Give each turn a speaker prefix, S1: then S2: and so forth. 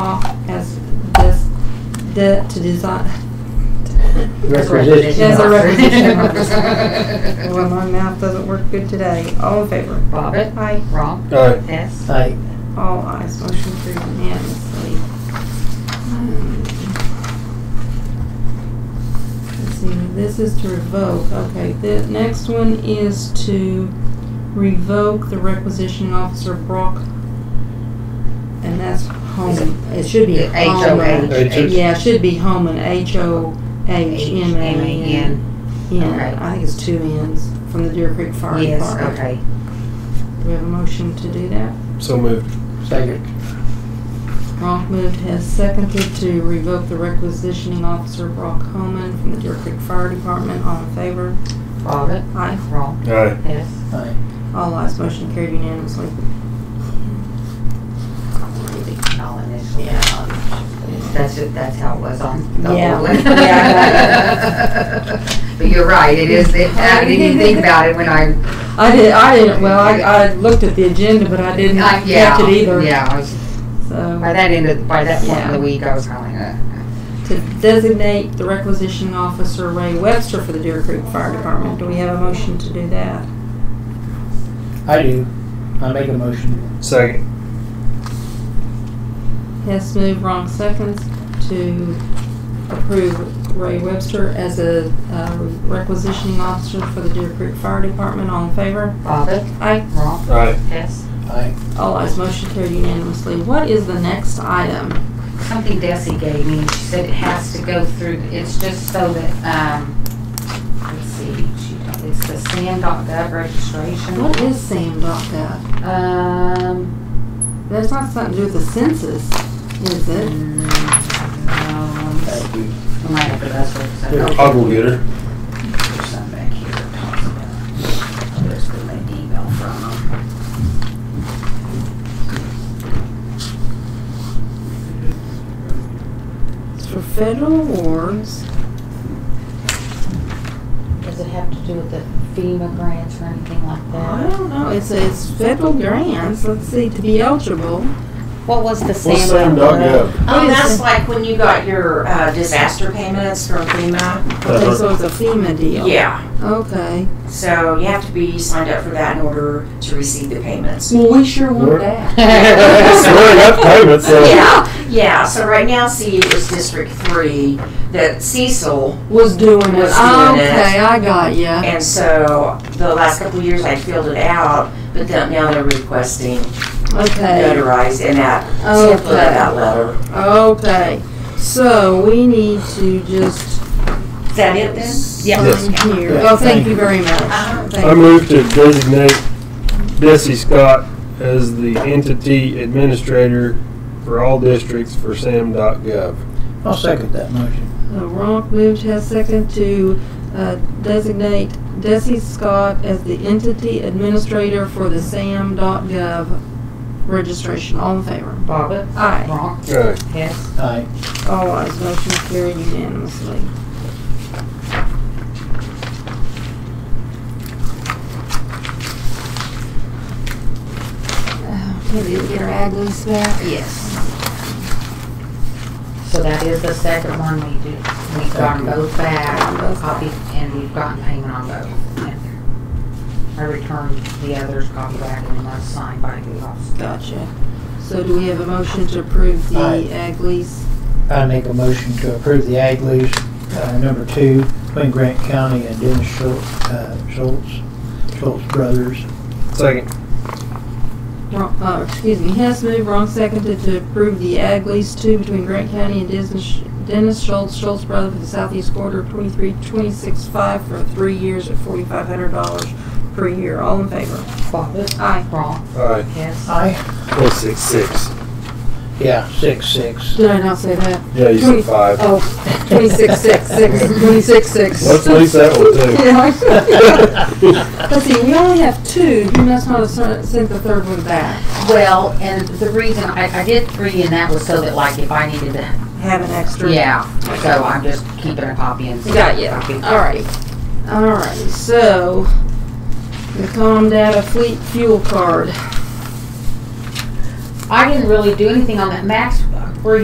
S1: de- to design.
S2: Requisition
S1: Yes, a
S2: officer.
S1: requisition officer. Well, my mouth doesn't work good today. All in favor?
S3: Bobbit.
S1: Aye.
S3: Wrong.
S4: Aye.
S3: Hess.
S2: Aye.
S1: All ayes, motion carried unanimously. Um, Let's see, this is to revoke, okay, the next one is to revoke the requisitioning officer Brock, and that's Home, Um, it should be
S3: H O
S1: Homa.
S3: H.
S4: H.
S1: Yeah, it should be Homan, H O H M A N.
S3: Okay.
S1: Yeah, I think it's two N's from the Deer Creek Fire Department.
S3: Yes, okay.
S1: Do we have a motion to do that?
S4: So moved.
S2: Second.
S1: Ronk moved has seconded to revoke the requisitioning officer Brock Homan from the Deer Creek Fire Department. All in favor?
S3: Bobbit.
S1: Aye.
S3: Wrong.
S4: Aye.
S3: Hess.
S2: Aye.
S1: All ayes, motion carried unanimously.
S3: All initials. That's it, that's how it was on the
S1: Yeah.
S3: old one.
S1: Yeah,
S3: But you're right, it is, it- I didn't even think about it when I,
S1: I did, I didn't, well, I, I looked at the agenda, but I didn't
S3: I-
S1: catch
S3: Uh, yeah,
S1: it either.
S3: yeah, I was, by
S1: So,
S3: that end of, by that point of
S1: Yeah.
S3: the week, I was uh, kind of,
S1: to designate the requisitioning officer Ray Webster for the Deer Creek Fire Department. Do we have a motion to do that?
S2: I do. I make a motion.
S4: Second.
S1: Hess moved, wrong seconds, to approve Ray Webster as a uh, requisitioning officer for the Deer Creek Fire Department. All in favor?
S3: Bobbit,
S1: Aye.
S3: wrong,
S4: Aye.
S3: Hess.
S2: Aye.
S1: All ayes, motion carried unanimously. What is the next item?
S3: Something Desi gave me, she said it has to go through, it's just so that, um, let's see, she, told- it's the SAM.gov registration.
S1: What is SAM.gov?
S3: Um,
S1: That's not something to do with the census, is it?
S3: mm, no,
S2: Thank
S3: let me
S2: you.
S3: I might have to ask her, 'cause I don't
S4: I'll go get her.
S3: There's some back here that talks about it. There's the main email from them.
S1: It's for federal awards.
S3: Does it have to do with the FEMA grants or anything like
S1: I don't know, it's, it's federal grants, let's see, to be eligible.
S3: What was the
S4: What's
S3: SAM?
S4: Sam.gov?
S5: Oh,
S1: What is
S5: that's
S1: it?
S5: like when you got your uh, disaster payments from FEMA.
S1: Okay, so it's a FEMA deal.
S5: Yeah,
S1: Okay.
S5: so you have to be signed up for that in order to receive the payments.
S1: Well, we sure
S4: We're-
S1: want that.
S4: Swearing up payments, so.
S5: Yeah, yeah, so right now, see, it was District Three that Cecil,
S1: was doing it.
S5: Was doing it.
S1: okay, I got ya.
S5: and so the last couple of years I filled it out, but then now they're requesting
S1: Okay,
S5: notarized in that,
S1: Okay.
S5: template of that letter.
S1: okay. So we need to just
S5: Is that it then?
S3: Yeah.
S4: Yes.
S1: sign here.
S2: Yeah,
S1: Oh, thank
S2: thank
S1: you very
S5: Uh-huh.
S1: much. Thank
S4: I
S1: you.
S4: move to designate Desi Scott as the entity administrator for all districts for SAM.gov.
S2: I'll second that motion.
S1: Uh, Ronk moved has second to uh, designate Desi Scott as the entity administrator for the SAM.gov registration. All in favor?
S3: Bobbit,
S1: Aye.
S3: wrong,
S4: Aye.
S3: Hess.
S2: Aye.
S1: All ayes, motion carried unanimously. Uh, Can we get our ag lease back?
S3: Yes. So that is the second one we do, we've gotten both back, copy, and we've gotten payment on both. I returned the others, copy back, and one signed by the officer.
S1: Gotcha. So do we have a motion to approve
S2: Aye.
S1: the ag lease?
S2: I make a motion to approve the ag lease, uh, number two, between Grant County and Dennis Schultz, uh, Schultz, Schultz Brothers.
S4: Second.
S1: Wrong, uh, excuse me, Hess moved, wrong seconded to approve the ag lease two between Grant County and Dennis Dennis Schultz, Schultz Brother for the southeast quarter of twenty-three, twenty-six five for three years at forty-five hundred dollars per year. All in favor?
S3: Bobbit,
S1: Aye.
S3: wrong,
S4: Aye.
S3: Hess.
S2: Aye.
S4: Oh, six, six.
S2: Yeah, six, six.
S1: Did I not say that?
S4: Yeah, you said five.
S1: Oh, twenty-six six six, twenty-six six.
S4: Let's lease that one too.
S1: But see, we only have two. You must not have sent sent the third one back.
S3: Well, and the reason, I, I did three and that was so that like if I needed to,
S1: Have an extra.
S3: yeah, so I'm just keeping a copy and.
S1: Got ya.
S3: Copy.
S1: Alright, alright, so, the Calm Data Fleet Fuel Card.
S3: I didn't really do anything on that. Max